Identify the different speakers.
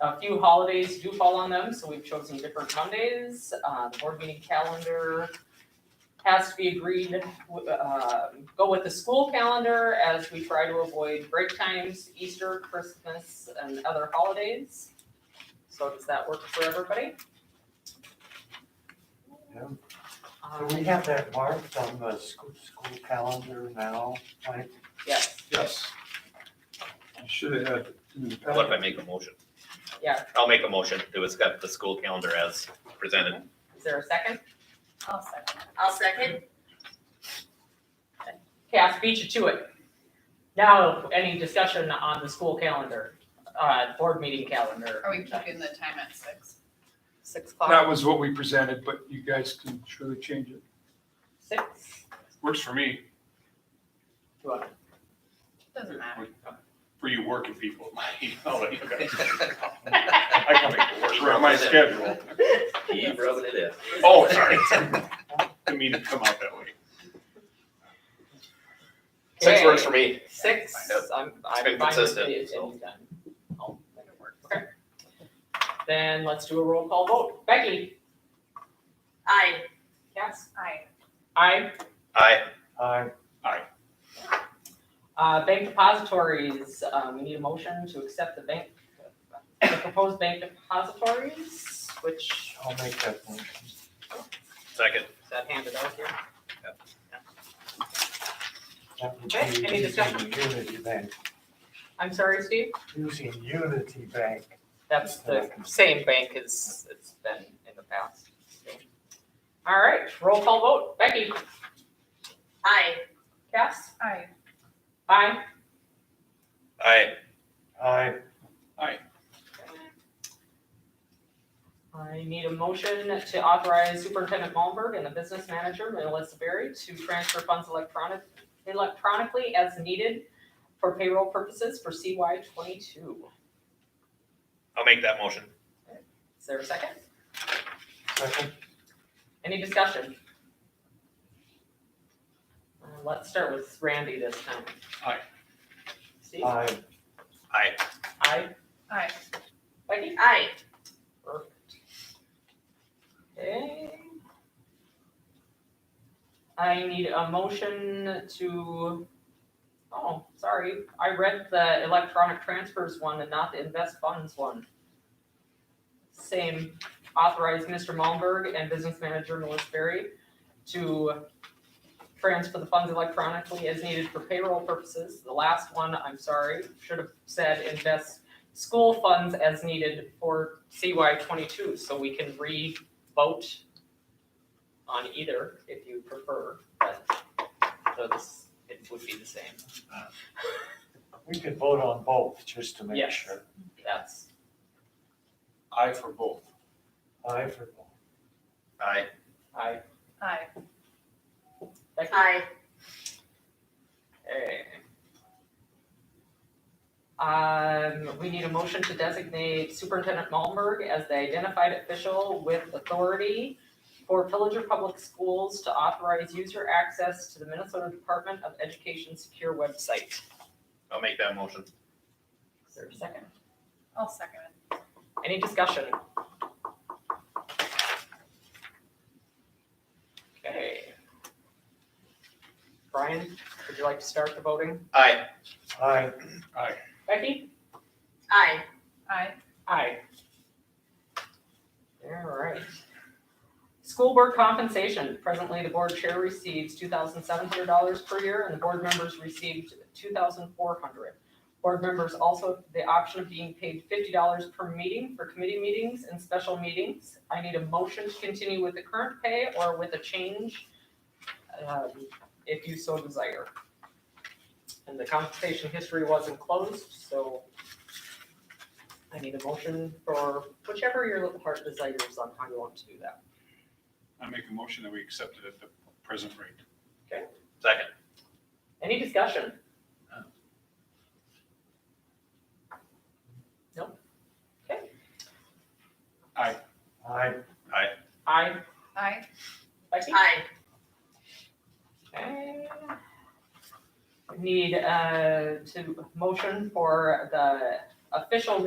Speaker 1: a few holidays do fall on them, so we've chosen different Mondays. Uh, the board meeting calendar has to be agreed, wi- uh, go with the school calendar as we try to avoid break times, Easter, Christmas, and other holidays. So does that work for everybody?
Speaker 2: Yeah.
Speaker 1: Um,
Speaker 2: Do we have that marked on the school, school calendar now? Like,
Speaker 1: Yes,
Speaker 3: Yes. You should have had it in the
Speaker 4: What if I
Speaker 3: packet.
Speaker 4: make a motion?
Speaker 1: Yeah.
Speaker 4: I'll make a motion to accept the school calendar as presented.
Speaker 1: is there a second?
Speaker 5: I'll second.
Speaker 1: I'll second. Okay, I beat you to it. Now, any discussion on the school calendar, uh, board meeting calendar?
Speaker 5: Are we keeping the time at six?
Speaker 1: Six
Speaker 3: That
Speaker 1: o'clock,
Speaker 3: was what we presented, but you guys can surely change it.
Speaker 1: six,
Speaker 6: Works for me,
Speaker 1: do I-
Speaker 5: Doesn't matter.
Speaker 6: for you working people, you know, like, okay. I can make it work around my schedule.
Speaker 4: You wrote it in.
Speaker 6: Oh, sorry. Didn't mean to come out that way.
Speaker 4: Six
Speaker 1: Okay,
Speaker 4: works for me.
Speaker 1: Six,
Speaker 4: I know.
Speaker 1: I'm, I'm
Speaker 4: been
Speaker 1: fine with
Speaker 4: consistent,
Speaker 1: it,
Speaker 4: so.
Speaker 1: and done. I'll make it work, okay. Then let's do a roll call vote. Becky? Aye. Yes?
Speaker 5: Aye.
Speaker 1: Aye.
Speaker 4: I,
Speaker 2: I,
Speaker 1: Uh, bank depositories, um, we need a motion to accept the bank, the proposed bank depositories, which,
Speaker 2: I'll make that motion.
Speaker 4: second,
Speaker 1: is that handed out here?
Speaker 2: That would
Speaker 1: Okay,
Speaker 2: be
Speaker 1: any discussion?
Speaker 2: using Unity Bank,
Speaker 1: I'm sorry, Steve?
Speaker 2: using Unity Bank.
Speaker 1: That's the same bank as it's been in the past. All right, roll call vote. Becky? Aye. Cass?
Speaker 5: Aye.
Speaker 1: Aye.
Speaker 4: I,
Speaker 2: I,
Speaker 1: I need a motion to authorize Superintendent Malmberg and the business manager, Melissa Berry, to transfer funds electronic, electronically as needed for payroll purposes for CY twenty-two.
Speaker 4: I'll make that motion.
Speaker 1: Is there a second?
Speaker 2: second,
Speaker 1: Any discussion? Uh, Let's start with Randy this time.
Speaker 6: Aye.
Speaker 1: Steve?
Speaker 2: I,
Speaker 4: I,
Speaker 1: Aye.
Speaker 5: Aye.
Speaker 1: Becky? Aye. Perfect. Okay. I need a motion to, oh, sorry, I read the electronic transfers one and not the invest funds one. Same, authorize Mr. Malmberg and business manager Melissa Berry to transfer the funds electronically as needed for payroll purposes. The last one, I'm sorry, should have said invest school funds as needed for CY twenty-two, so we can re-vote on either if you prefer, but those, it would be the same.
Speaker 2: we could vote on both, just to make
Speaker 1: Yes.
Speaker 2: sure.
Speaker 1: That's,
Speaker 6: I for both.
Speaker 2: I for both.
Speaker 4: I,
Speaker 1: I,
Speaker 5: Aye.
Speaker 1: Becky?
Speaker 5: Aye.
Speaker 1: Okay. Um, we need a motion to designate Superintendent Malmberg as the identified official with authority for Pillager Public Schools to authorize user access to the Minnesota Department of Education secure website.
Speaker 4: I'll make that motion.
Speaker 1: Is there a second?
Speaker 5: I'll second it.
Speaker 1: Any discussion? Okay. Brian, would you like to start the voting?
Speaker 4: I,
Speaker 2: I,
Speaker 1: Becky? Aye.
Speaker 5: Aye.
Speaker 1: Aye. All right. School board compensation. Presently, the board chair receives two thousand seven hundred dollars per year and the board members received two thousand four hundred. Board members also have the option of being paid fifty dollars per meeting for committee meetings and special meetings. I need a motion to continue with the current pay or with a change, um, if you so desire. And the compensation history wasn't closed, so I need a motion for whichever your little heart desires on how you want to do that.
Speaker 6: I make a motion that we accept it at the present rate.
Speaker 4: second,
Speaker 1: Any discussion?
Speaker 2: I,
Speaker 1: Aye.
Speaker 5: Aye.
Speaker 1: Becky?
Speaker 5: Aye.
Speaker 1: Okay. Need, uh, to motion for the official